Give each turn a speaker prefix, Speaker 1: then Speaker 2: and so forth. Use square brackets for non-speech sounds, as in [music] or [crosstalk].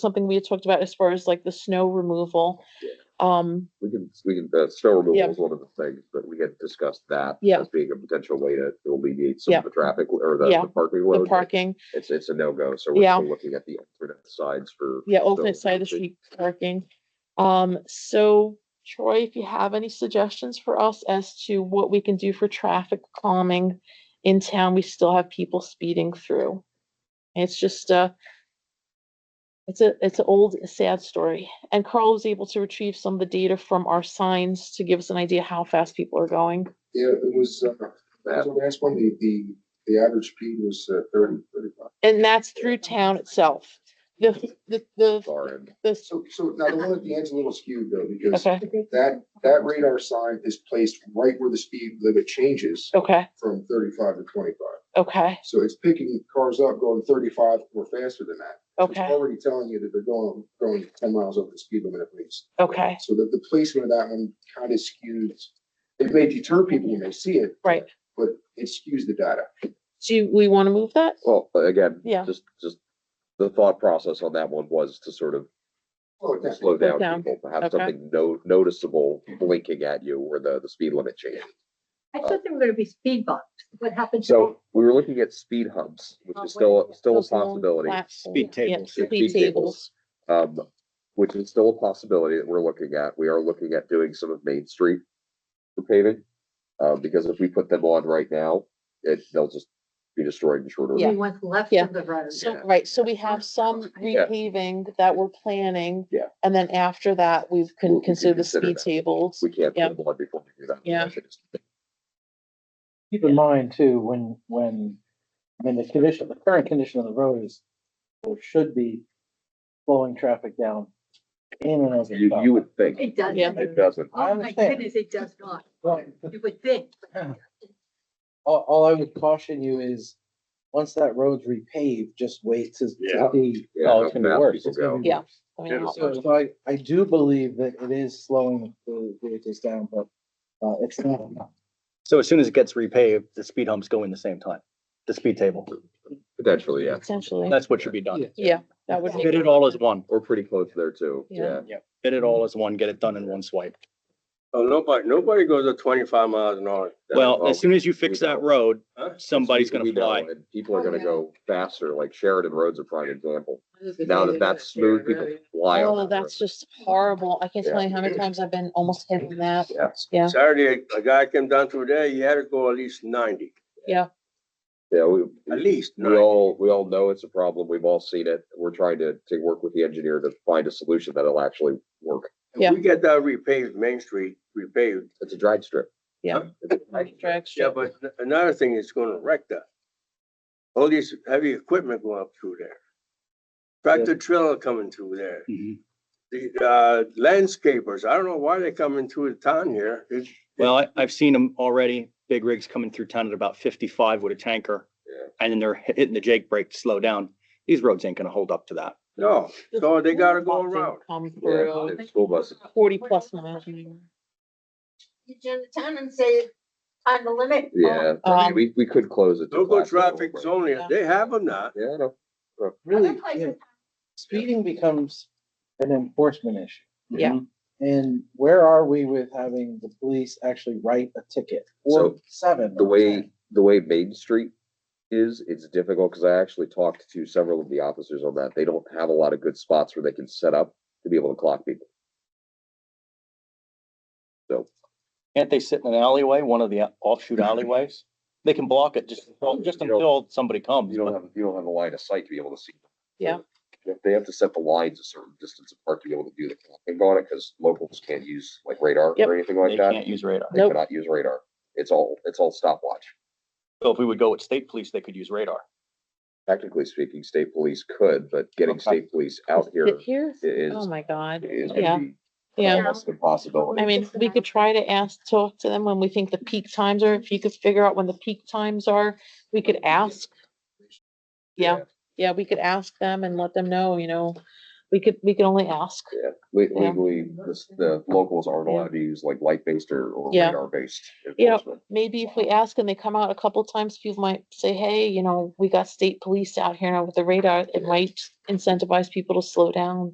Speaker 1: something we had talked about as far as like the snow removal.
Speaker 2: Yeah.
Speaker 1: Um,
Speaker 2: We can, we can, the snow
Speaker 1: Yeah.
Speaker 2: removal is one of the things, but we had discussed that.
Speaker 1: Yeah.
Speaker 2: As being a potential way to to alleviate some
Speaker 1: Yeah.
Speaker 2: of the traffic or the-
Speaker 1: Yeah,
Speaker 2: the parking
Speaker 1: the
Speaker 2: load. but
Speaker 1: parking,
Speaker 2: It's, it's a no-go, so we're
Speaker 1: Yeah.
Speaker 2: still looking at the alternate sides for.
Speaker 1: yeah,
Speaker 2: snow
Speaker 1: alternate side of the
Speaker 2: removal.
Speaker 1: street parking. Um, so Troy, if you have any suggestions for us as to what we can do for traffic calming in town, we still have people speeding through. It's just uh it's a, it's an old sad story. And Carl was able to retrieve some of the data from our signs to give us an idea how fast people are going.
Speaker 3: Yeah, it was, uh, that was the last one, the, the, the average speed was uh, thirty, thirty-five.
Speaker 1: And that's through town itself. The, the, the,
Speaker 2: Far end.
Speaker 1: the,
Speaker 3: So, so now the one at the end's a little skewed though, because
Speaker 1: okay,
Speaker 3: that, that radar sign is placed right where the speed limit changes
Speaker 1: okay,
Speaker 3: from thirty-five to twenty-five.
Speaker 1: okay,
Speaker 3: So it's picking cars up going thirty-five or faster than that. It's
Speaker 1: okay,
Speaker 3: already telling you that they're going, going ten miles over the speed limit at least.
Speaker 1: okay,
Speaker 3: So that the placement of that one kind of skews, it may deter people when they see it.
Speaker 1: right.
Speaker 3: But it skews the data.
Speaker 1: Do you- we want to move that?
Speaker 2: Well, but again,
Speaker 1: Yeah.
Speaker 2: just, just the thought process on that one was to sort of
Speaker 3: Oh, it does.
Speaker 2: slow
Speaker 1: down.
Speaker 2: down people, to have
Speaker 1: Okay.
Speaker 2: something no, noticeable blinking at you where the, the speed limit changes.
Speaker 4: I thought there were gonna be speed bumps. What happened to that?
Speaker 2: So we were looking at speed humps, which
Speaker 4: Oh,
Speaker 2: is still,
Speaker 4: wait,
Speaker 2: still a
Speaker 1: Those long
Speaker 2: possibility.
Speaker 1: platform-
Speaker 5: Speed
Speaker 1: yeah,
Speaker 5: tables.
Speaker 2: Yeah,
Speaker 1: Speed
Speaker 2: speed
Speaker 1: tables,
Speaker 2: tables. Um, which is still a possibility that we're looking at. We are looking at doing some of Main Street for paving. Uh, because if we put them on right now, it, they'll just be destroyed in short order.
Speaker 4: Only one's left
Speaker 1: Yeah.
Speaker 4: of the road.
Speaker 1: so,
Speaker 2: Yeah.
Speaker 1: right, so we have some
Speaker 2: Yeah.
Speaker 1: repaving that we're planning.
Speaker 2: Yeah.
Speaker 1: And then after that, we
Speaker 2: We- we
Speaker 1: can
Speaker 2: can
Speaker 1: consider the
Speaker 2: consider
Speaker 1: speed
Speaker 2: that.
Speaker 1: tables.
Speaker 2: We can't
Speaker 1: Yeah.
Speaker 2: put them on before we do that.
Speaker 1: Yeah.
Speaker 5: Keep in mind too, when, when, I mean, the condition, the current condition of the road is, or should be slowing traffic down in and over.
Speaker 2: You, you would think,
Speaker 4: It doesn't.
Speaker 1: Yeah.
Speaker 2: it doesn't.
Speaker 5: I
Speaker 4: Oh my
Speaker 5: understand.
Speaker 4: goodness, it does not.
Speaker 5: Well,
Speaker 4: You would think.
Speaker 5: All, all I would caution you is, once that road's repaved, just wait to to
Speaker 2: Yeah.
Speaker 5: see.
Speaker 2: Yeah,
Speaker 5: Oh,
Speaker 2: how
Speaker 5: it's gonna be
Speaker 2: fast
Speaker 5: worse.
Speaker 2: people
Speaker 5: It's gonna
Speaker 2: go.
Speaker 5: be
Speaker 1: Yeah.
Speaker 5: worse.
Speaker 1: I mean, uh,
Speaker 2: Yeah,
Speaker 1: I'll-
Speaker 5: So so I, I do believe that it is slowing the vehicles down, but, uh, it's not enough.
Speaker 6: So as soon as it gets repaved, the speed humps go in the same time, the speed table.
Speaker 2: Potentially, yeah,
Speaker 1: Potentially,
Speaker 6: That's what should be done.
Speaker 1: yeah, that would
Speaker 6: Fit
Speaker 1: be,
Speaker 6: it all as one,
Speaker 2: or pretty close there too, yeah.
Speaker 1: Yeah.
Speaker 6: fit it all as one, get it done in one swipe.
Speaker 7: Oh, nobody, nobody goes at twenty-five miles an hour.
Speaker 2: well,
Speaker 6: Well, as soon as you fix
Speaker 2: we
Speaker 6: that
Speaker 2: know.
Speaker 6: road,
Speaker 7: Huh?
Speaker 6: somebody's
Speaker 2: We-
Speaker 6: gonna
Speaker 2: we know,
Speaker 6: fly.
Speaker 2: and People are
Speaker 4: Oh,
Speaker 2: gonna
Speaker 4: yeah.
Speaker 2: go faster, like Sheridan Road's a prime example. Now that that's smooth, people fly on.
Speaker 1: oh,
Speaker 2: that road.
Speaker 1: that's just horrible. I can't tell
Speaker 2: Yeah.
Speaker 1: you how many times I've been almost hitting that.
Speaker 2: Yeah.
Speaker 1: Yeah,
Speaker 7: Saturday, a guy came down through there, he had to go at least ninety,
Speaker 2: Yeah, we,
Speaker 7: at least
Speaker 2: we
Speaker 7: ninety.
Speaker 2: all, we all know it's a problem. We've all seen it. We're trying to, to work with the engineer to find a solution that'll actually work.
Speaker 1: Yeah.
Speaker 7: If we get that repaved, Main Street repaved,
Speaker 2: It's a drag strip.
Speaker 1: Yeah.
Speaker 2: It's a drag strip.
Speaker 1: drag
Speaker 7: yeah,
Speaker 1: strip.
Speaker 7: but n- another thing is gonna wreck that. All these heavy equipment going up through there. Tractor trailer coming through there.
Speaker 6: Mhm.
Speaker 7: The, uh, landscapers, I don't know why they coming through the town here. It's-
Speaker 6: Well, I, I've seen them already, big rigs coming through town at about fifty-five with a tanker.
Speaker 2: Yeah.
Speaker 6: And then they're hit- hitting the Jake brake to slow down. These roads ain't gonna hold up to that.
Speaker 7: No, so they gotta go
Speaker 1: Buses
Speaker 7: around.
Speaker 1: Come
Speaker 2: Yeah,
Speaker 1: through,
Speaker 2: it's school buses.
Speaker 1: forty plus miles an hour.
Speaker 4: You turn the town and say, on the limit.
Speaker 2: Yeah, I
Speaker 1: Um,
Speaker 2: mean, we, we could close it. to
Speaker 7: Local
Speaker 2: Black Hole,
Speaker 7: traffic
Speaker 2: but-
Speaker 7: zone,
Speaker 1: Yeah.
Speaker 7: they have them now.
Speaker 2: Yeah, I know.
Speaker 5: Really,
Speaker 4: Other places
Speaker 5: you know,
Speaker 4: have
Speaker 5: speeding becomes an enforcement issue.
Speaker 6: Mm-hmm.
Speaker 1: Yeah.
Speaker 5: And where are we with having the police actually write a ticket or
Speaker 2: So,
Speaker 5: seven?
Speaker 2: the
Speaker 5: or
Speaker 2: way,
Speaker 5: 10?
Speaker 2: the way Main Street is, it's difficult, cause I actually talked to several of the officers on that. They don't have a lot of good spots where they can set up to be able to clock people.
Speaker 6: Can't they sit in an alleyway, one of the uh, [laughs] offshoot alleyways? They can block it just, until- just
Speaker 2: You know-
Speaker 6: until somebody comes.
Speaker 2: You don't
Speaker 6: but-
Speaker 2: have, you don't have a line of sight to be able to see. them.
Speaker 1: Yeah.
Speaker 2: If They have to set the lines a certain distance apart to be able to do the clocking on it, because locals can't use like radar
Speaker 1: Yep.
Speaker 2: or anything like
Speaker 6: They
Speaker 2: that.
Speaker 6: can't use radar.
Speaker 2: They
Speaker 1: Nope.
Speaker 2: cannot use radar. It's all, it's all stopwatch.
Speaker 6: So if we would go with state police, they could use radar.
Speaker 2: Technically speaking, state police could, but getting
Speaker 6: Okay.
Speaker 2: state police out here
Speaker 1: Sit here?
Speaker 2: i- is,
Speaker 1: Oh, my God.
Speaker 2: is
Speaker 1: Yeah.
Speaker 2: gonna be
Speaker 1: Yeah,
Speaker 2: almost an impossibility.
Speaker 1: I mean, we could try to ask, talk to them when we think the peak times are, if you could figure out when the peak times are, we could ask. Yeah, yeah, we could ask them and let them know, you know, we could, we could only ask.
Speaker 2: Yeah, le-
Speaker 1: Yeah.
Speaker 2: legally, this- the locals aren't allowed to use like light-based or or
Speaker 1: Yeah.
Speaker 2: radar-based
Speaker 1: Yeah.
Speaker 2: enforcement.
Speaker 1: Maybe if we ask and they come out a couple times, people might say, hey, you know, we got state police out here now with the radar. It might incentivize people to slow down.